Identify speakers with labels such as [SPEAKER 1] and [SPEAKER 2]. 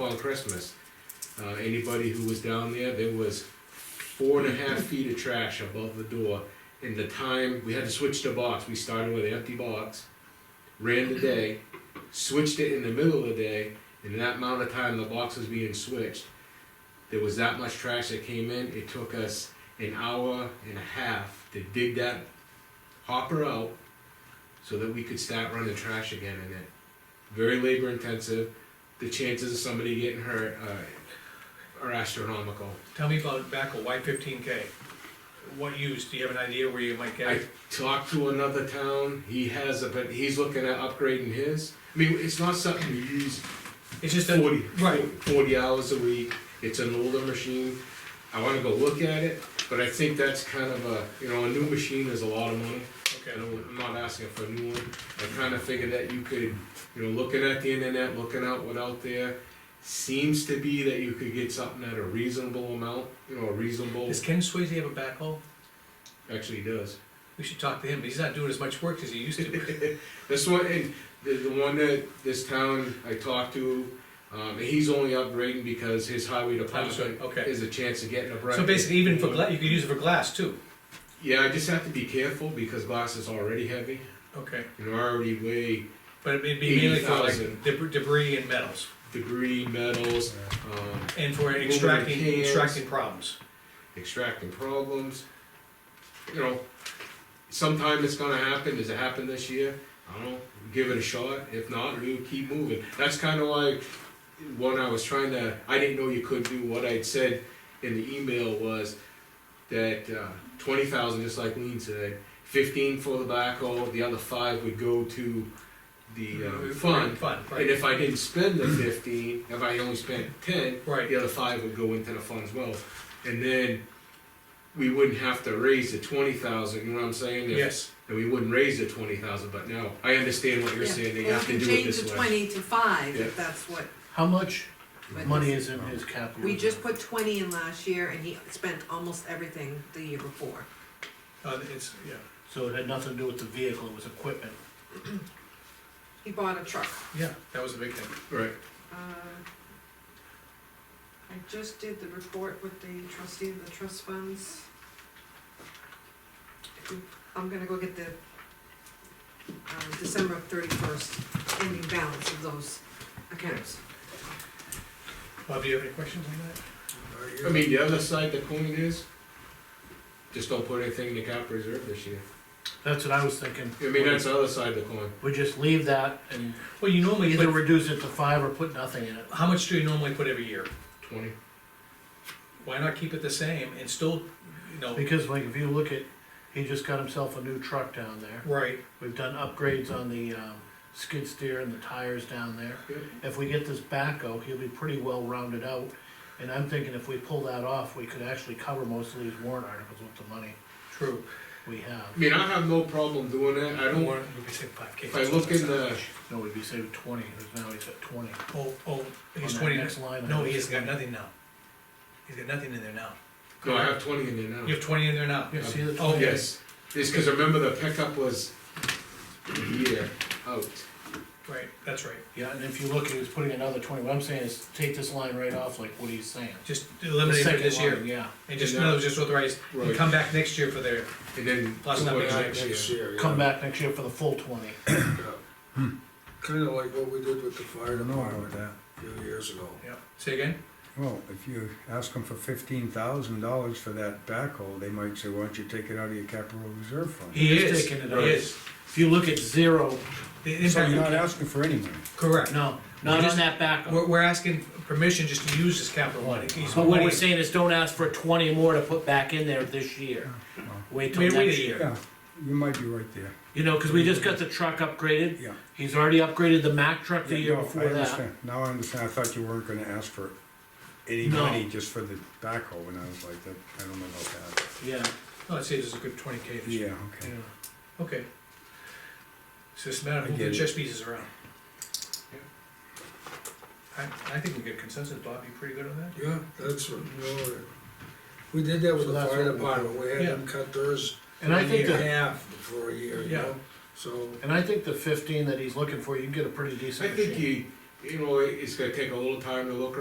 [SPEAKER 1] on Christmas. Uh, anybody who was down there, there was four and a half feet of trash above the door. And the time, we had to switch the box, we started with an empty box, ran the day, switched it in the middle of the day, and in that amount of time the box was being switched, there was that much trash that came in, it took us an hour and a half to dig that hopper out so that we could start running trash again in it. Very labor intensive, the chances of somebody getting hurt uh, are astronomical.
[SPEAKER 2] Tell me about back of Y fifteen K. What use, do you have an idea where you might get
[SPEAKER 1] I
[SPEAKER 2] it?
[SPEAKER 1] talked to another town, he has a, but he's looking at upgrading his. I mean, it's not something you use
[SPEAKER 2] It's just a,
[SPEAKER 1] 40,
[SPEAKER 2] right.
[SPEAKER 1] 40 hours a week, it's an older machine. I wanna go look at it, but I think that's kind of a, you know, a new machine is a lot of money. I
[SPEAKER 2] okay,
[SPEAKER 1] don't, I'm not asking for a new one, I kinda figured that you could, you know, looking at the internet, looking out what out there, seems to be that you could get something at a reasonable amount, you know, a reasonable,
[SPEAKER 2] does Ken Swayze have a backhoe?
[SPEAKER 1] actually does.
[SPEAKER 2] We should talk to him, he's not doing as much work as he used to.
[SPEAKER 1] This one, and the, the one that this town I talked to, um, he's only upgrading because his highway department
[SPEAKER 2] okay.
[SPEAKER 1] is a chance of getting a break.
[SPEAKER 2] So basically, even for gla, you could use it for glass too.
[SPEAKER 1] Yeah, I just have to be careful because glass is already heavy
[SPEAKER 2] Okay,
[SPEAKER 1] and already weigh
[SPEAKER 2] but it'd be mainly for like
[SPEAKER 1] 80,000.
[SPEAKER 2] debr- debris and metals,
[SPEAKER 1] debris, metals, um,
[SPEAKER 2] and for
[SPEAKER 1] the
[SPEAKER 2] extracting,
[SPEAKER 1] cans.
[SPEAKER 2] extracting problems.
[SPEAKER 1] extracting problems. You know, sometime it's gonna happen, does it happen this year? I don't know, give it a shot, if not, we keep moving. That's kinda like, when I was trying to, I didn't know you could do, what I'd said in the email was that, uh, twenty thousand, just like Lean said, fifteen for the backhoe, the other five would go to the, uh, fund.
[SPEAKER 2] Fun,
[SPEAKER 1] And
[SPEAKER 2] right,
[SPEAKER 1] if I didn't spend the fifteen, if I only spent ten,
[SPEAKER 2] right,
[SPEAKER 1] the other five would go into the fund as well. And then we wouldn't have to raise the twenty thousand, you know what I'm saying? If-
[SPEAKER 2] yes,
[SPEAKER 1] And we wouldn't raise the twenty thousand, but no, I understand what you're
[SPEAKER 3] Yeah,
[SPEAKER 1] saying, that you
[SPEAKER 3] Well,
[SPEAKER 1] have
[SPEAKER 3] you
[SPEAKER 1] to
[SPEAKER 3] can
[SPEAKER 1] do it
[SPEAKER 3] change the
[SPEAKER 1] this way.
[SPEAKER 3] twenty to five,
[SPEAKER 1] Yeah.
[SPEAKER 3] if that's what,
[SPEAKER 4] How much
[SPEAKER 3] but
[SPEAKER 4] money is in his capital?
[SPEAKER 3] we just
[SPEAKER 4] reserve?
[SPEAKER 3] put twenty in last year, and he spent almost everything the year before.
[SPEAKER 2] uh, it's, yeah,
[SPEAKER 4] So it had nothing to do with the vehicle, it was equipment.
[SPEAKER 3] He bought a truck.
[SPEAKER 2] yeah, that was a big thing.
[SPEAKER 1] Right,
[SPEAKER 3] Uh, I just did the report with the trustee of the trust funds. I'm gonna go get the, uh, December thirty-first ending balance of those accounts.
[SPEAKER 2] Bob, do you have any questions on
[SPEAKER 1] I mean, the other side of the coin is, just don't put anything in the cap reserve this year.
[SPEAKER 4] That's what I was thinking.
[SPEAKER 1] I mean, that's the other side of the coin.
[SPEAKER 4] We just leave that and
[SPEAKER 2] that? Well, you normally,
[SPEAKER 4] either
[SPEAKER 2] put-
[SPEAKER 4] reduce it to five or put nothing in it.
[SPEAKER 2] how much do you normally put every year?
[SPEAKER 1] Twenty,
[SPEAKER 2] Why not keep it the same and still, you know,
[SPEAKER 4] Because like if you look at, he just got himself a new truck down there.
[SPEAKER 2] right,
[SPEAKER 4] We've done upgrades on the um, skid steer and the tires down there.
[SPEAKER 1] yeah,
[SPEAKER 4] If we get this backhoe, he'll be pretty well rounded out. And I'm thinking if we pull that off, we could actually cover most of these warrant articles with the money
[SPEAKER 2] true.
[SPEAKER 4] we have.
[SPEAKER 1] I mean, I have no problem doing that, I don't,
[SPEAKER 2] Warren, we could say five K.
[SPEAKER 1] if I look in the,
[SPEAKER 4] No, we'd be saving twenty, because now he's at twenty.
[SPEAKER 2] Oh, oh, he's
[SPEAKER 4] On that
[SPEAKER 2] twenty,
[SPEAKER 4] next line, I
[SPEAKER 2] no,
[SPEAKER 4] think
[SPEAKER 2] he
[SPEAKER 4] it's
[SPEAKER 2] has got
[SPEAKER 4] 20.
[SPEAKER 2] nothing now. He's got nothing in there now.
[SPEAKER 1] no, I have twenty in there now.
[SPEAKER 2] You have twenty in there now?
[SPEAKER 4] Yeah, see the
[SPEAKER 2] Oh,
[SPEAKER 4] twenty?
[SPEAKER 1] Yes, it's because remember the pickup was a year out.
[SPEAKER 2] Right, that's right.
[SPEAKER 4] Yeah, and if you look, he was putting another twenty, what I'm saying is take this line right off, like what he's saying.
[SPEAKER 2] Just
[SPEAKER 4] The
[SPEAKER 2] eliminate it
[SPEAKER 4] second
[SPEAKER 2] this
[SPEAKER 4] line,
[SPEAKER 2] year,
[SPEAKER 4] Yeah,
[SPEAKER 2] and just,
[SPEAKER 1] And
[SPEAKER 2] no,
[SPEAKER 1] that-
[SPEAKER 2] just authorize, and
[SPEAKER 1] Right.
[SPEAKER 2] come back next year for their,
[SPEAKER 1] And then.
[SPEAKER 2] Plus
[SPEAKER 1] what
[SPEAKER 2] nothing
[SPEAKER 1] happens
[SPEAKER 5] Next
[SPEAKER 1] here.
[SPEAKER 5] year, yeah. Hmm.
[SPEAKER 4] come back next year for the full twenty.
[SPEAKER 5] Kinda like what we did with the fire
[SPEAKER 6] I don't know about
[SPEAKER 5] department
[SPEAKER 6] that.
[SPEAKER 5] a few years ago.
[SPEAKER 2] yeah, say again?
[SPEAKER 6] Well, if you ask them for fifteen thousand dollars for that backhoe, they might say, why don't you take it out of your capital reserve fund?
[SPEAKER 2] He
[SPEAKER 4] He's
[SPEAKER 2] is, he
[SPEAKER 4] taking it out.
[SPEAKER 2] is.
[SPEAKER 4] If you look at zero,
[SPEAKER 2] The
[SPEAKER 6] So you're not
[SPEAKER 2] impact-
[SPEAKER 6] asking for any money.
[SPEAKER 2] Correct.
[SPEAKER 4] no, not on that
[SPEAKER 2] We're,
[SPEAKER 4] backup.
[SPEAKER 2] we're asking permission just to use this capital money. He's
[SPEAKER 4] But what
[SPEAKER 2] money-
[SPEAKER 4] we're saying is don't ask for twenty more to put back in there this year. Wait till
[SPEAKER 2] Wait, wait
[SPEAKER 4] next
[SPEAKER 2] a
[SPEAKER 4] year.
[SPEAKER 2] year.
[SPEAKER 6] Yeah, you might be right there,
[SPEAKER 4] You know, cause we just got the truck upgraded.
[SPEAKER 6] yeah.
[SPEAKER 4] He's already upgraded the Mack truck the
[SPEAKER 6] Yeah,
[SPEAKER 4] year
[SPEAKER 6] no, I
[SPEAKER 4] before that.
[SPEAKER 6] understand. Now I understand, I thought you weren't gonna ask for any
[SPEAKER 4] No.
[SPEAKER 6] money just for the backhoe, and I was like, that, I don't know about that.
[SPEAKER 4] Yeah,
[SPEAKER 2] Oh, I'd say there's a good twenty K this year.
[SPEAKER 6] Yeah,
[SPEAKER 4] yeah.
[SPEAKER 6] okay.
[SPEAKER 2] Okay. It's just a matter of
[SPEAKER 6] I
[SPEAKER 2] moving
[SPEAKER 6] get
[SPEAKER 2] the
[SPEAKER 6] it.
[SPEAKER 2] chess pieces around. I, I think we get consensus, Bob, you pretty good on that?
[SPEAKER 5] Yeah, that's what, you know, we did that with
[SPEAKER 4] So
[SPEAKER 5] the
[SPEAKER 4] that's
[SPEAKER 5] fire
[SPEAKER 4] what we
[SPEAKER 5] department, we had
[SPEAKER 2] Yeah.
[SPEAKER 5] them cut theirs
[SPEAKER 4] And I
[SPEAKER 5] in
[SPEAKER 4] think the,
[SPEAKER 5] half for a year, you
[SPEAKER 2] Yeah.
[SPEAKER 5] know? So,
[SPEAKER 4] and I think the fifteen that he's looking for, you can get a pretty decent
[SPEAKER 1] I think
[SPEAKER 4] machine.
[SPEAKER 1] you, you know, it's gonna take a little time to look